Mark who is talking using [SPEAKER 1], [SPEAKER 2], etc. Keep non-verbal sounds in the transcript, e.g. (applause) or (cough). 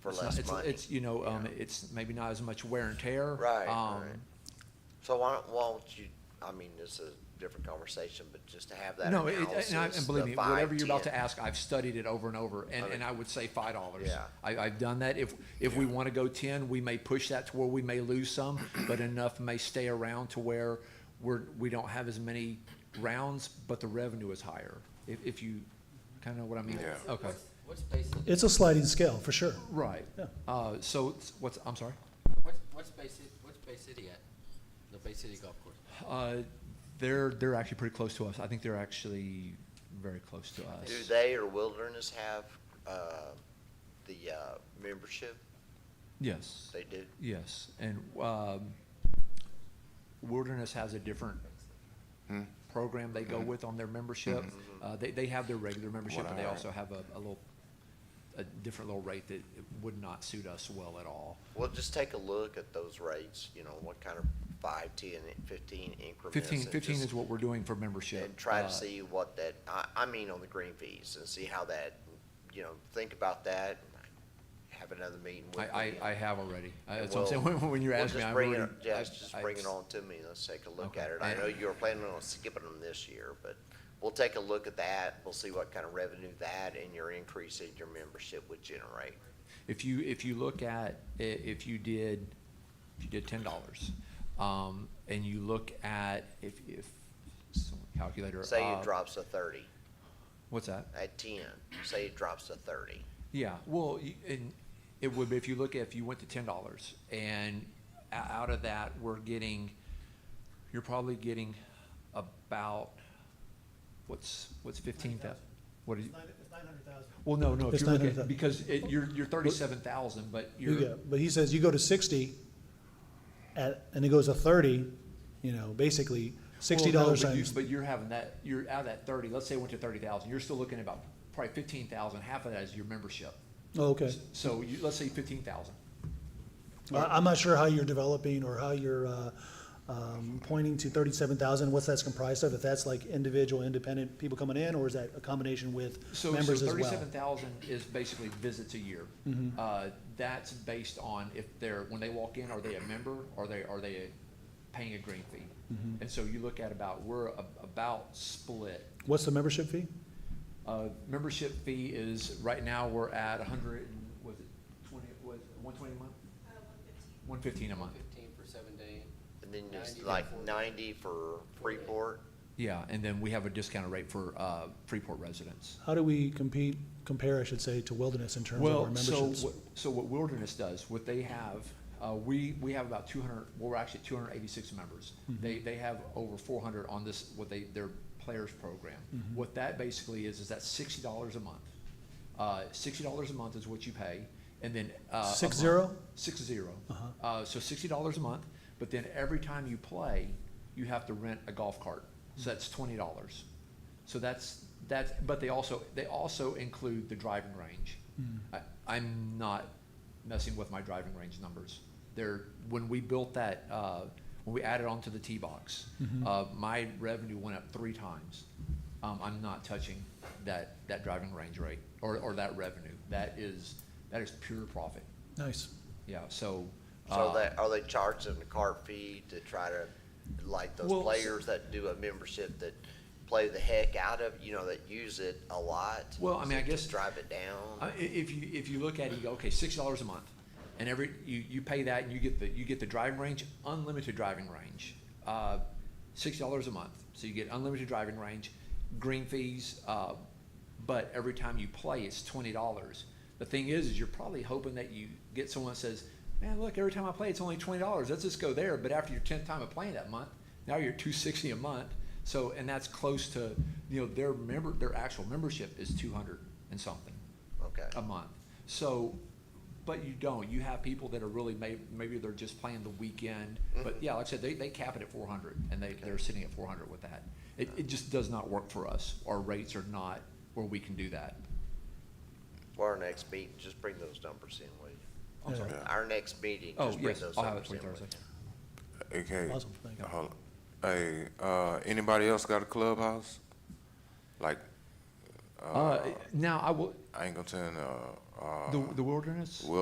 [SPEAKER 1] for
[SPEAKER 2] It's not-
[SPEAKER 1] less
[SPEAKER 2] it's-
[SPEAKER 1] money.
[SPEAKER 2] It's, you know, um, it's maybe not as much wear and tear.
[SPEAKER 1] Right,
[SPEAKER 2] um,
[SPEAKER 1] right. So why don't, why don't you, I mean, it's a different conversation, but just to have that
[SPEAKER 2] No, it-
[SPEAKER 1] analysis.
[SPEAKER 2] and, I, and believe
[SPEAKER 1] the
[SPEAKER 2] me, whatever you're about to
[SPEAKER 1] 5,
[SPEAKER 2] ask, I've studied it over and over, and,
[SPEAKER 1] Okay.
[SPEAKER 2] and I would say five dollars.
[SPEAKER 1] Yeah.
[SPEAKER 2] I, I've done that. If if we want to go ten, we may push that to where we may lose some, (clears throat) but enough may stay around to where we're we don't have as many rounds, but the revenue is higher. If, if you kind of know what I mean.
[SPEAKER 3] Yeah.
[SPEAKER 2] Okay.
[SPEAKER 4] What's- What's basically,
[SPEAKER 5] It's a sliding scale, for sure.
[SPEAKER 2] Right.
[SPEAKER 5] Yeah.
[SPEAKER 2] Uh, so it's- what's I'm sorry.
[SPEAKER 4] what's, what's Bay City, what's Bay City at? The Bay City Golf Course?
[SPEAKER 2] Uh, they're they're actually pretty close to us. I think they're actually very close to us.
[SPEAKER 1] Do they or Wilderness have, uh, the, uh, membership?
[SPEAKER 2] Yes.
[SPEAKER 1] They do?
[SPEAKER 2] Yes, and um, Wilderness has a different program they go with on their membership. Uh, They, they have their regular membership, but they
[SPEAKER 3] Wow.
[SPEAKER 2] also have a a little, a different little rate that would not suit us well at all.
[SPEAKER 1] Well, just take a look at those rates, you know, what kind of five, ten, fifteen increments.
[SPEAKER 2] Fifteen,
[SPEAKER 1] and
[SPEAKER 2] fifteen
[SPEAKER 1] just-
[SPEAKER 2] is what we're doing for membership.
[SPEAKER 1] And try
[SPEAKER 2] Uh,
[SPEAKER 1] to see what that, I, I mean on the green fees and see how that, you know, think about that. and Have another meeting
[SPEAKER 2] I,
[SPEAKER 1] with
[SPEAKER 2] I,
[SPEAKER 1] them.
[SPEAKER 2] I have already. I-
[SPEAKER 1] And
[SPEAKER 2] That's what I'm saying, (laughs)
[SPEAKER 1] we'll-
[SPEAKER 2] when you're
[SPEAKER 1] we'll
[SPEAKER 2] asking me,
[SPEAKER 1] just
[SPEAKER 2] I
[SPEAKER 1] bring
[SPEAKER 2] really.
[SPEAKER 1] it- Yes,
[SPEAKER 2] I-
[SPEAKER 1] just
[SPEAKER 2] I-
[SPEAKER 1] bring it on to me, let's take a look
[SPEAKER 2] Okay.
[SPEAKER 1] at it. I
[SPEAKER 2] And-
[SPEAKER 1] know you were planning on skipping them this year, but we'll take a look at that. We'll see what kind of revenue that and your increase in your membership would generate.
[SPEAKER 2] If you, if you look at, i- if you did, if you did ten dollars, um, and you look at, if, if, some calculator.
[SPEAKER 1] Say
[SPEAKER 2] uh,
[SPEAKER 1] it drops to thirty,
[SPEAKER 2] What's that?
[SPEAKER 1] at ten, say it drops to thirty.
[SPEAKER 2] Yeah, well, y- and it would, be if you look at, if you went to ten dollars, and o- out of that, we're getting, you're probably getting about, what's, what's fifteen thousand? What is,
[SPEAKER 5] It's nine hundred thousand.
[SPEAKER 2] well, no, no, if
[SPEAKER 5] It's
[SPEAKER 2] you look at,
[SPEAKER 5] 900,000.
[SPEAKER 2] because it, you're, you're thirty-seven thousand, but
[SPEAKER 5] You
[SPEAKER 2] you're,
[SPEAKER 5] go, but he says you go to sixty at, and it goes to thirty, you know, basically sixty
[SPEAKER 2] Well, no,
[SPEAKER 5] dollars
[SPEAKER 2] but you-
[SPEAKER 5] times.
[SPEAKER 2] But you're having that, you're out of that thirty, let's say it went to thirty thousand, you're still looking at about probably fifteen thousand, half of that is your membership.
[SPEAKER 5] Oh, Okay.
[SPEAKER 2] So you, let's say fifteen thousand.
[SPEAKER 5] I- I'm not sure how you're developing or how you're, uh, um, pointing to thirty-seven thousand, what's that's comprised of? If that's like individual, independent people coming in, or is that a combination with
[SPEAKER 2] So, so
[SPEAKER 5] members as well? Mm-hmm.
[SPEAKER 2] thirty-seven thousand is basically visits a year. Uh, that's based on if they're, when they walk in, are they a member, are they, are they paying a green fee?
[SPEAKER 5] Mm-hmm.
[SPEAKER 2] And so you look at about, we're a- about split.
[SPEAKER 5] What's the membership fee?
[SPEAKER 2] Uh, membership fee is, right now, we're at a hundred, and was it twenty, was one twenty a month? Uh, One fifteen a month.
[SPEAKER 4] Fifteen for seven day?
[SPEAKER 1] And then it's
[SPEAKER 4] 90
[SPEAKER 1] like
[SPEAKER 4] for-
[SPEAKER 1] ninety for Freeport.
[SPEAKER 2] Yeah, and then we have a discounted rate for uh, Freeport residents.
[SPEAKER 5] How do we compete, compare, I should say, to Wilderness in terms of our
[SPEAKER 2] Well, so,
[SPEAKER 5] memberships?
[SPEAKER 2] what- so what Wilderness does, what they have, uh, we, we have about two hundred, well, we're actually two hundred eighty-six members.
[SPEAKER 5] Mm-hmm.
[SPEAKER 2] They, they have over four hundred on this, what they, their players program.
[SPEAKER 5] Mm-hmm.
[SPEAKER 2] What that basically is, is that's sixty dollars a month. Uh, sixty dollars a month is what you pay, and then, uh. a
[SPEAKER 5] Six
[SPEAKER 2] month-
[SPEAKER 5] zero?
[SPEAKER 2] Six zero. Uh, so sixty dollars a month, but then every time you play, you have to rent a golf cart, so that's twenty dollars. So that's, that's, but they also, they also include the driving range. I, I'm not messing with my driving range numbers. They're, when we built that, uh, when we added on to the tee box, uh, my revenue went up three times. Um, I'm not touching that, that driving range rate or, or that revenue. That is, that is pure profit.
[SPEAKER 5] Nice.
[SPEAKER 2] Yeah, so.
[SPEAKER 1] So
[SPEAKER 2] uh,
[SPEAKER 1] that, are they charging the card fee to try to, like those
[SPEAKER 2] Well, s-
[SPEAKER 1] players that do a membership that play the heck out of, you know, that use it a lot?
[SPEAKER 2] Well, I
[SPEAKER 1] Is
[SPEAKER 2] mean, I
[SPEAKER 1] it to
[SPEAKER 2] guess-
[SPEAKER 1] Drive it down?
[SPEAKER 2] I- Uh, i- If you, if you look at it, you go, okay, six dollars a month, and every, you, you pay that, and you get the, you get the driving range, unlimited driving range, uh, six dollars a month, so you get unlimited driving range, green fees, uh, but every time you play, it's twenty dollars. The thing is, is you're probably hoping that you get someone that says, man, look, every time I play, it's only twenty dollars, let's just go there, but after your tenth time of playing that month, now you're two sixty a month, so, and that's close to, you know, their member, their actual membership is two hundred and something
[SPEAKER 1] Okay.
[SPEAKER 2] a month. So, but you don't. You have people that are really may, maybe they're just playing the weekend.
[SPEAKER 1] Mm-hmm.
[SPEAKER 2] But yeah, like I said, they, they cap it at four hundred and they, they're sitting at four hundred with that. It, it just does not work for us. Our rates are not where we can do that.
[SPEAKER 1] Well, our next meeting, just bring those numbers in, will you?
[SPEAKER 2] I'm sorry.
[SPEAKER 5] Yeah.
[SPEAKER 1] Our next meeting,
[SPEAKER 2] Oh,
[SPEAKER 1] just bring
[SPEAKER 2] yes,
[SPEAKER 1] those
[SPEAKER 2] I'll have it
[SPEAKER 1] numbers
[SPEAKER 2] for
[SPEAKER 1] in.
[SPEAKER 2] you
[SPEAKER 1] will
[SPEAKER 2] Thursday.
[SPEAKER 1] you?
[SPEAKER 3] Okay.
[SPEAKER 5] Awesome, thank you.
[SPEAKER 3] Hold on. Hey, uh, anybody else got a clubhouse? Like,
[SPEAKER 2] Uh, now I will,
[SPEAKER 3] I ain't gonna turn, uh, uh,
[SPEAKER 2] the, the wilderness?